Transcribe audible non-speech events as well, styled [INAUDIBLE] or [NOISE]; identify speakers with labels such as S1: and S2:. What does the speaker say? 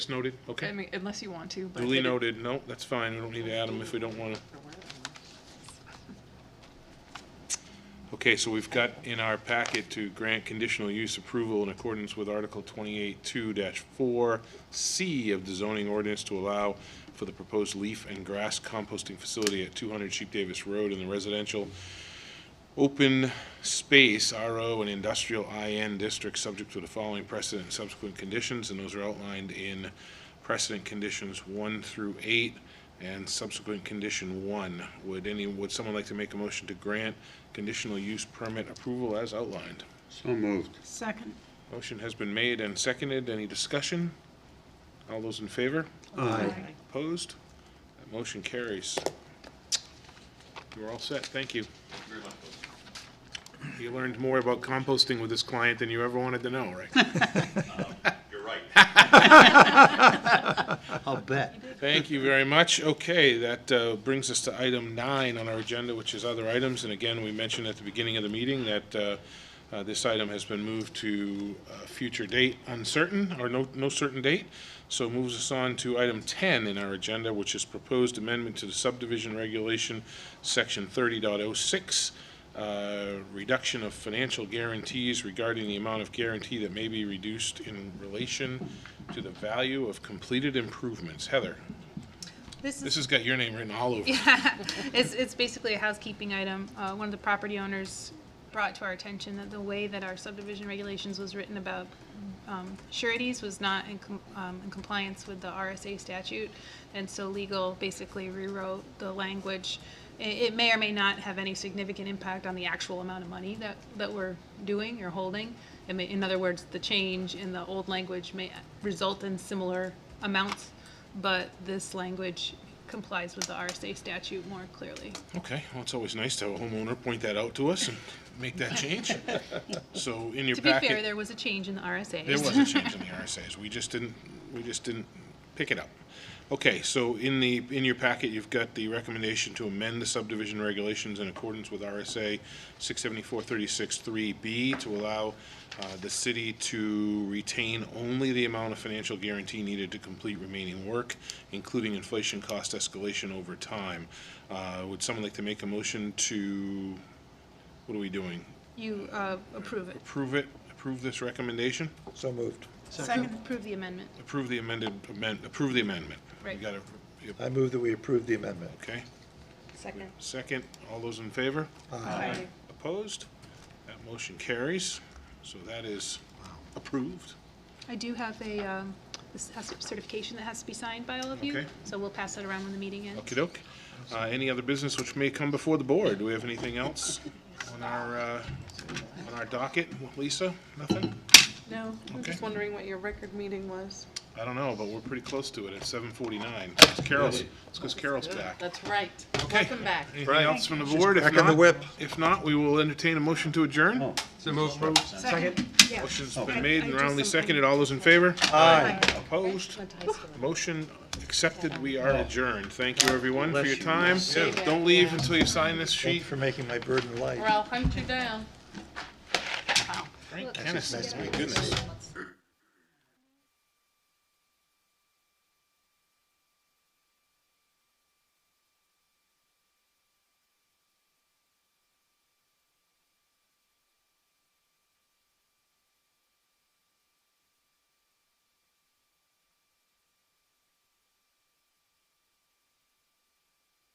S1: It's noted,
S2: I
S1: okay.
S2: mean, unless you want to, but.
S1: Duly noted, no, that's fine, we don't need to add them if we don't want to. Okay, so we've got in our packet to grant conditional use approval in accordance with Article 28-2-4C of the zoning ordinance to allow for the proposed leaf and grass composting facility at 200 Sheep Davis Road in the residential open space, RO, and industrial IN districts, subject to the following precedent and subsequent conditions, and those are outlined in precedent conditions one through eight and subsequent condition one. Would any, would someone like to make a motion to grant conditional use permit approval as outlined?
S3: So moved.
S4: Second.
S1: Motion has been made and seconded. Any discussion? All those in favor?
S3: Aye.
S1: Opposed? That motion carries. You're all set, thank you. You learned more about composting with this client than you ever wanted to know, right?
S5: You're right.
S3: I'll bet.
S1: Thank you very much. Okay, that uh, brings us to item nine on our agenda, which is other items. And again, we mentioned at the beginning of the meeting that uh, uh, this item has been moved to a future date uncertain, or no, no certain date. So it moves us on to item 10 in our agenda, which is proposed amendment to the subdivision regulation, section 30.06, uh, reduction of financial guarantees regarding the amount of guarantee that may be reduced in relation to the value of completed improvements. Heather?
S6: This
S1: This
S6: is,
S1: has got your name written all over. it.
S6: it's, it's basically a housekeeping item. Uh, one of the property owners brought to our attention that the way that our subdivision regulations was written about, um, sureties was not in, com- um, in compliance with the RSA statute. And so legal basically rewrote the language. It, it may or may not have any significant impact on the actual amount of money that, that we're doing or holding. I mean, in other words, the change in the old language may result in similar amounts, but this language complies with the RSA statute more clearly.
S1: Okay, well, it's always nice to have a homeowner point that out to us and make that
S6: [LAUGHS]
S1: change. So in your
S6: To be
S1: packet.
S6: fair, there was a change in the RSA.
S1: There was a change in the RSAs, we just didn't, we just didn't pick it up. Okay, so in the, in your packet, you've got the recommendation to amend the subdivision regulations in accordance with RSA six seventy-four thirty-six three B to allow uh, the city to retain only the amount of financial guarantee needed to complete remaining work, including inflation cost escalation over time. Uh, Would someone like to make a motion to, what are we doing?
S6: [LAUGHS] You uh, approve it,
S1: Approve it, approve this recommendation?
S3: So moved.
S4: Second.
S6: approve the amendment.
S1: Approve the amended, amend, approve the amendment.
S6: Right.
S1: You got it, yep,
S3: I move that we approve the amendment.
S1: okay.
S6: Second.
S1: Second, all those in favor?
S6: Aye.
S1: Opposed? That motion carries, so that is approved.
S6: I do have a, um, this has certification that has to be signed by all of you,
S1: Okay.
S6: so we'll pass that around when the meeting ends.
S1: okey doke. Uh, any other business which may come before the board? Do we have anything else on our, uh, on our docket? Lisa, nothing?
S2: No, I'm
S1: Okay.
S2: just wondering what your record meeting was.
S1: I don't know, but we're pretty close to it at seven forty-nine. Carol's, it's because Carol's back.
S7: That's right.
S1: Okay.
S7: Welcome back.
S1: Anything else from the board? If
S3: back on the
S1: not-
S3: whip.
S1: If not, we will entertain a motion to adjourn.
S4: Second.
S1: Motion's been made and roundly seconded. All those in favor? Aye. Opposed? Motion accepted. We are adjourned. Thank you, everyone, for your time. Don't leave until you sign this sheet.
S3: Thanks for making my burden light.
S7: Or I'll hunt you down.
S1: Frank Dennis, my goodness.